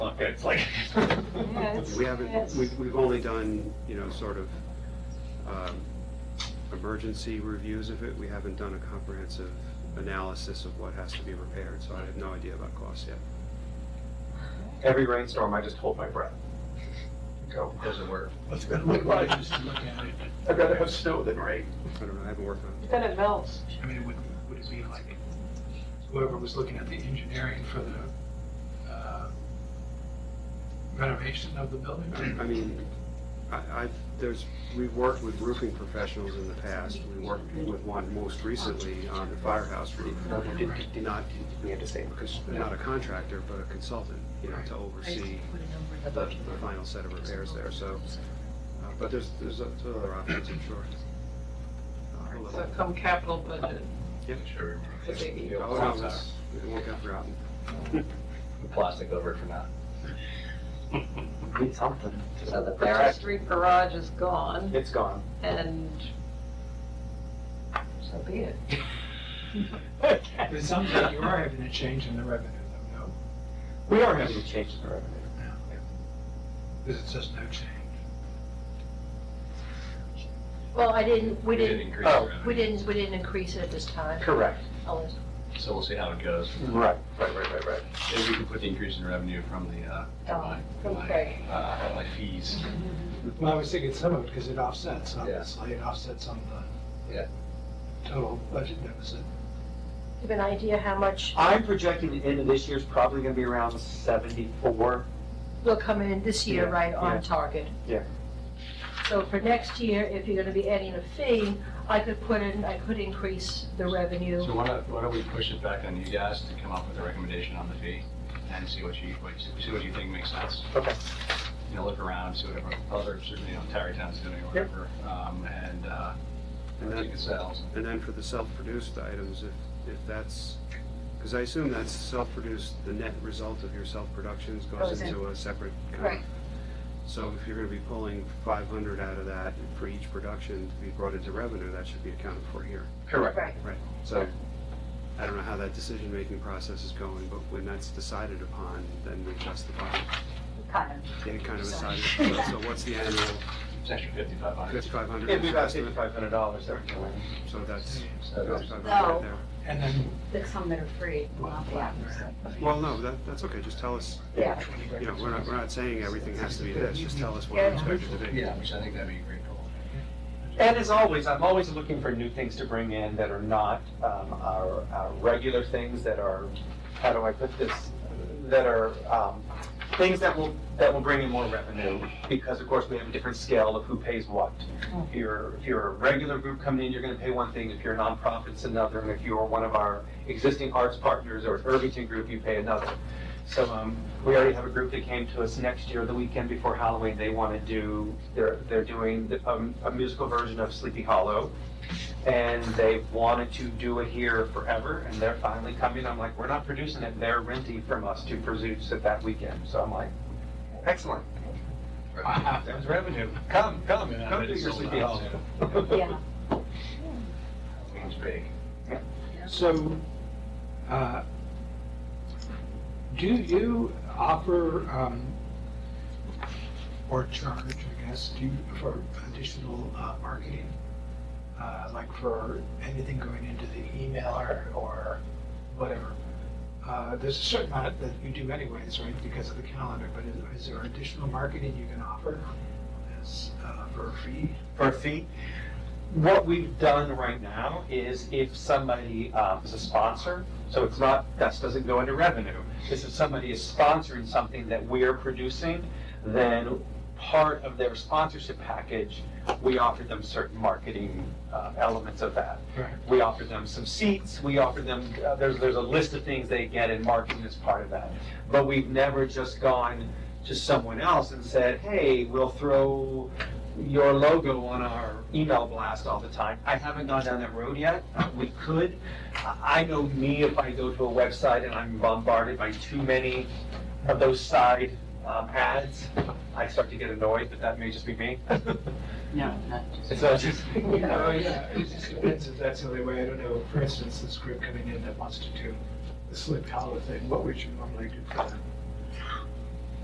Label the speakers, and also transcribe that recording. Speaker 1: up, it's like.
Speaker 2: it's-
Speaker 3: We haven't,
Speaker 2: Yes.
Speaker 3: we've, we've only done, you know, sort of, um, emergency reviews of it. We haven't done a comprehensive analysis of what has to be repaired, so I have no idea about costs yet.
Speaker 1: Every rainstorm, I just hold my breath. Go, doesn't work. What's it gonna look like?
Speaker 4: Just to look at it,
Speaker 1: I'd rather have snow than rain.
Speaker 3: I don't know, I haven't worked on it.
Speaker 2: It's gonna melt.
Speaker 4: I mean, would, would it be like whoever was looking at the engineering for the uh, renovation of the building?
Speaker 3: I mean, I, I, there's, we've worked with roofing professionals in the past. We worked with one most recently on the firehouse roof. Not,
Speaker 1: We have to say, because
Speaker 3: not a contractor, but a consultant, you know, to oversee the, the final set of repairs there, so. uh, But there's, there's o- there's other options, I'm sure. Uh, we'll
Speaker 5: So
Speaker 3: let-
Speaker 5: come capital budget,
Speaker 3: Yeah.
Speaker 1: Sure.
Speaker 5: the baby.
Speaker 3: Oh, no, it's- it won't get forgotten.
Speaker 6: plastic over it for now.
Speaker 7: Need something, so that they're
Speaker 5: First
Speaker 7: at,
Speaker 5: Street Garage is gone,
Speaker 1: It's gone.
Speaker 5: and so be it.
Speaker 4: But it sounds like you are having a change in the revenue though, no?
Speaker 1: We are having a change in the revenue.
Speaker 4: Because it says no change.
Speaker 8: Well, I didn't, we
Speaker 6: didn't
Speaker 8: didn't,
Speaker 6: increase the
Speaker 1: Oh.
Speaker 6: revenue.
Speaker 8: we didn't, we didn't increase it at this time.
Speaker 1: Correct.
Speaker 8: Oh, it's-
Speaker 6: So we'll see how it goes.
Speaker 1: Right, right, right, right, right.
Speaker 6: Maybe we can put the increase in revenue from the, uh, from my- from my,
Speaker 5: Okay.
Speaker 6: uh, my fees.
Speaker 4: Well, I was thinking some of it because it offsets,
Speaker 6: Yeah.
Speaker 4: obviously, it offsets on the
Speaker 6: Yeah.
Speaker 4: total budget deficit.
Speaker 8: You have an idea how much
Speaker 7: I'm projecting the end of this year's probably gonna be around seventy-four.
Speaker 8: will come in this year,
Speaker 7: Yeah,
Speaker 8: right
Speaker 7: yeah.
Speaker 8: on target?
Speaker 7: Yeah.
Speaker 8: So for next year, if you're gonna be adding a fee, I could put in, I could increase the revenue.
Speaker 6: So why don't, why don't we push it back on you guys to come up with a recommendation on the fee and see what you, what you- see what you think makes sense?
Speaker 1: Okay.
Speaker 6: You know, look around, see what everyone- other, certainly, you know, Tarrytown's doing or whatever, um, and, uh,
Speaker 3: And
Speaker 6: take
Speaker 3: then,
Speaker 6: it sales.
Speaker 3: and then for the self-produced items, if, if that's, because I assume that's self-produced, the net result of your self-productions goes
Speaker 8: Goes in.
Speaker 3: into a separate kind of.
Speaker 8: Right.
Speaker 3: So if you're gonna be pulling five hundred out of that for each production to be brought into revenue, that should be accounted for here.
Speaker 1: Correct.
Speaker 8: Right.
Speaker 3: Right, so I don't know how that decision-making process is going, but when that's decided upon, then we justify it.
Speaker 8: Kind of.
Speaker 3: Yeah, kind of decided, so what's the annual,
Speaker 6: It's an extra fifty-five hundred.
Speaker 3: fifty-five hundred?
Speaker 1: It'd be about fifty-five hundred dollars there.
Speaker 3: So that's,
Speaker 6: So,
Speaker 3: fifty-five hundred right there.
Speaker 4: And then
Speaker 9: the some that are free, will not be out there.
Speaker 3: Well, no, that, that's okay, just tell us,
Speaker 8: Yeah.
Speaker 3: you know, we're not, we're not saying everything has to be this, just tell us what you expect it to be.
Speaker 6: Yeah, which I think that'd be a great goal.
Speaker 7: And as always, I'm always looking for new things to bring in that are not um, our, our regular things that are, how do I put this? That are um, things that will, that will bring in more revenue because of course we have a different scale of who pays what. If you're, if you're a regular group coming in, you're going to pay one thing. If you're a nonprofit, it's another. And if you're one of our existing arts partners or an Irvington group, you pay another. So um, we already have a group that came to us next year, the weekend before Halloween. They want to do, they're, they're doing the- um, a musical version of Sleepy Hollow. And they've wanted to do it here forever, and they're finally coming. I'm like, we're not producing it. They're renting from us to produce it that weekend. So I'm like, excellent.
Speaker 6: Wow,
Speaker 7: there's revenue.
Speaker 6: Come, come,
Speaker 4: Yeah,
Speaker 6: come
Speaker 4: but
Speaker 6: do
Speaker 4: it's
Speaker 6: your
Speaker 4: sold
Speaker 6: Sleepy
Speaker 4: out,
Speaker 6: Hollow.
Speaker 9: Yeah.
Speaker 6: It's big.
Speaker 4: So, uh, do you offer, um, or charge, I guess, do you, for additional uh, marketing? Uh, Like for anything going into the email or, or whatever? Uh, There's a certain amount that you do anyways, right, because of the calendar, but is- is there additional marketing you can offer as, uh, for a fee?
Speaker 7: for a fee. What we've done right now is if somebody um, is a sponsor, so it's not, that doesn't go into revenue. Is if somebody is sponsoring something that we are producing, then part of their sponsorship package, we offer them certain marketing uh, elements of that.
Speaker 4: Right.
Speaker 7: We offer them some seats, we offer them, uh, there's, there's a list of things they get in marketing as part of that. But we've never just gone to someone else and said, hey, we'll throw your logo on our email blast all the time. I haven't gone down that road yet. Uh, We could. I I know me, if I go to a website and I'm bombarded by too many of those side um, ads, I start to get annoyed, but that may just be me.
Speaker 9: No, not just.
Speaker 7: It's not just, you
Speaker 4: Oh,
Speaker 7: know,
Speaker 4: yeah, it just depends if that's the only way, I don't know, for instance, this group coming in that wants to do the Sleepy Hollow thing, what would you normally do for them?